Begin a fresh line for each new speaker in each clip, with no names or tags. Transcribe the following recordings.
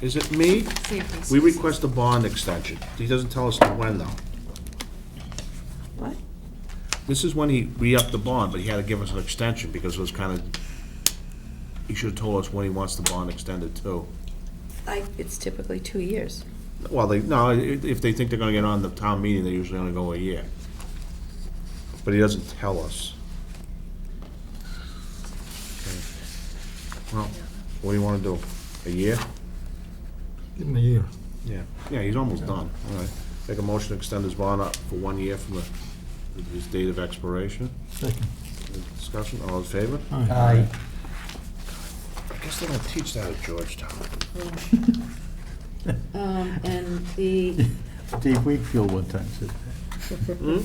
Is it me?
Safety
We
services.
request a bond extension. He doesn't tell us when, though.
What?
This is when he re-upped the bond, but he had to give us an extension because it was kind of, he should have told us when he wants the bond extended to.
I, it's typically two years.
Well, they, no, i- if they think they're gonna get on the town meeting, they usually only go a year. But he doesn't tell us. Okay. Well, what do you wanna do? A year?
Give him a year.
Yeah. Yeah, he's almost done, all right. Make a motion to extend his bond up for one year from the, his date of expiration.
Second.
Discussion, all in favor?
Aye.
I guess they don't teach that at Georgetown.
Um, and the,
Dave Wakefield one time said
Hmm?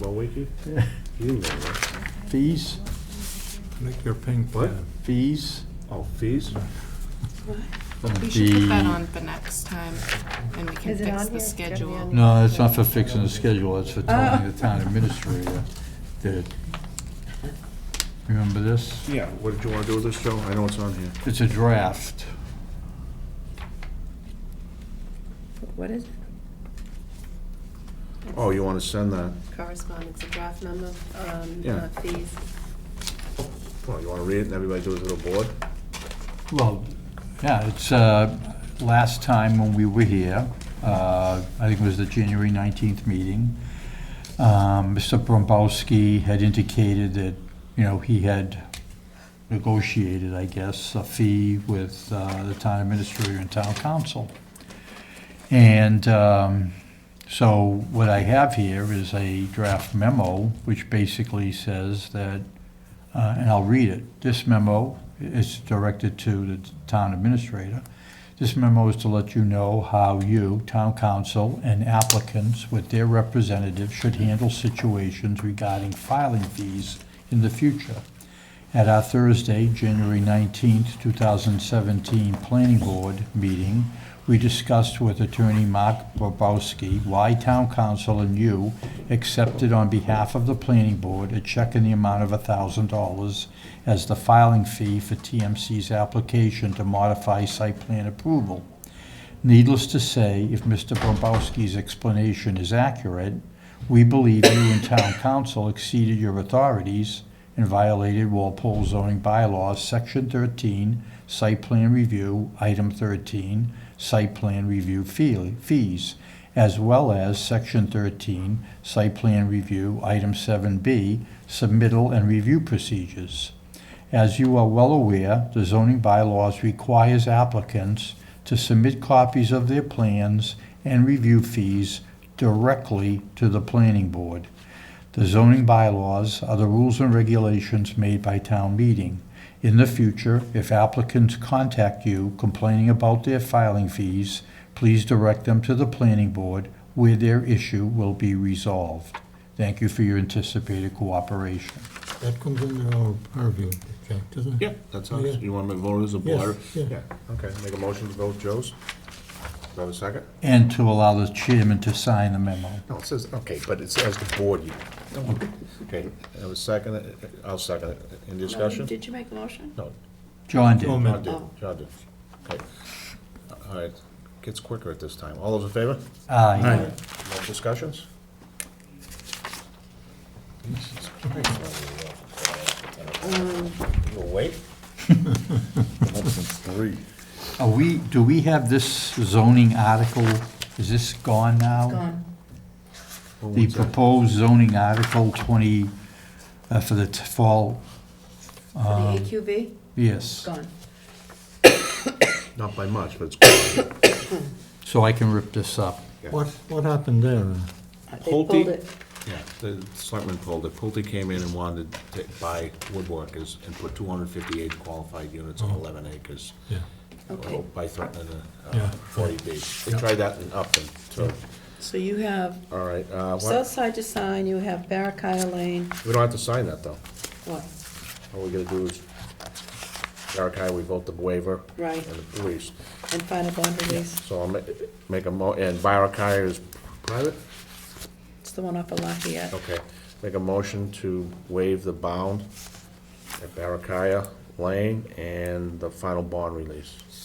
Well, Wakey,
that.
you know that.
Fees,
Lick your pink
What?
pad.
fees.
Oh, fees?
we should put that
The-
on for next time, and we can
Is it
fix
on
the
here? It's gotta be
schedule.
on
No, that's not for fixing the schedule, that's for
Oh.
telling the town administrator that, remember this?
Yeah, what did you wanna do with this, Joe? I know it's on here.
It's a draft.
What is it?
Oh, you wanna send that?
Correspondence, a draft memo on
Yeah.
uh, fees.
Well, you wanna read it and everybody do it to the board?
Well, yeah, it's, uh, last time when we were here, uh, I think it was the January 19th meeting, um, Mr. Brombowski had indicated that, you know, he had negotiated, I guess, a fee with uh, the town administrator and town council. And um, so what I have here is a draft memo, which basically says that uh, and I'll read it. This memo is directed to the town administrator. This memo is to let you know how you, town council, and applicants with their representatives should handle situations regarding filing fees in the future. At our Thursday, January 19th, 2017 Planning Board meeting, we discussed with Attorney Mark Bobowski why Town Council and you accepted on behalf of the Planning Board a check in the amount of $1,000 as the filing fee for TMC's application to modify site plan approval. Needless to say, if Mr. Bombowski's explanation is accurate, we believe you and town council exceeded your authorities and violated Walpole zoning bylaws, section thirteen, site plan review, item thirteen, site plan review fee- fees, as well as section thirteen, site plan review, item seven B, submittal and review procedures. As you are well aware, the zoning bylaws requires applicants to submit copies of their plans and review fees directly to the planning board. The zoning bylaws are the rules and regulations made by town meeting. In the future, if applicants contact you complaining about their filing fees, please direct them to the planning board where their issue will be resolved. Thank you for your anticipated cooperation.
That comes under our purview, Jack, doesn't it?
Yeah, that's how, it's-
Yeah.
you wanna make vote as a
Yes,
board?
yeah.
Okay, make a motion to vote Joe's. Do I have a second?
And to allow the chairman to sign the memo.
No, it says, okay, but it says the board, you. Okay, I have a second, I'll second it. Any discussion?
Did you make a motion?
No,
John did.
Oh,
John
man.
did, John did. Okay. All right, gets quicker at this time. All those in favor?
Aye.
Aye.
No discussions? Jesus Christ. You awake? Three.
Are we, do we have this zoning article, is this gone now?
Gone.
The proposed zoning article 20, uh, for the t- fall,
For
Um,
the AQV?
yes.
Gone.
Not by much, but it's.
So I can rip this up.
What, what happened there?
They
Pulte?
pulled it.
Yeah, the selectmen pulled it. Pulte came in and wanted to buy woodworkers and put 258 qualified units on 11 acres
Yeah.
Okay.
uh, by threatening a
Yeah.
uh, 40B. They tried that in Upton, so,
So you have
all right. uh, what-
Southside to sign, you have Barracuda Lane,
We don't have to sign that, though.
what?
All we gotta do is, Eric and I, we vote the waiver.
Right.
And the police.
And final bond release,
So I'll ma- make a mo, and Barakai is private?
it's the one off of Lafayette.
Okay. Make a motion to waive the bound at Barakaya Lane and the final bond release.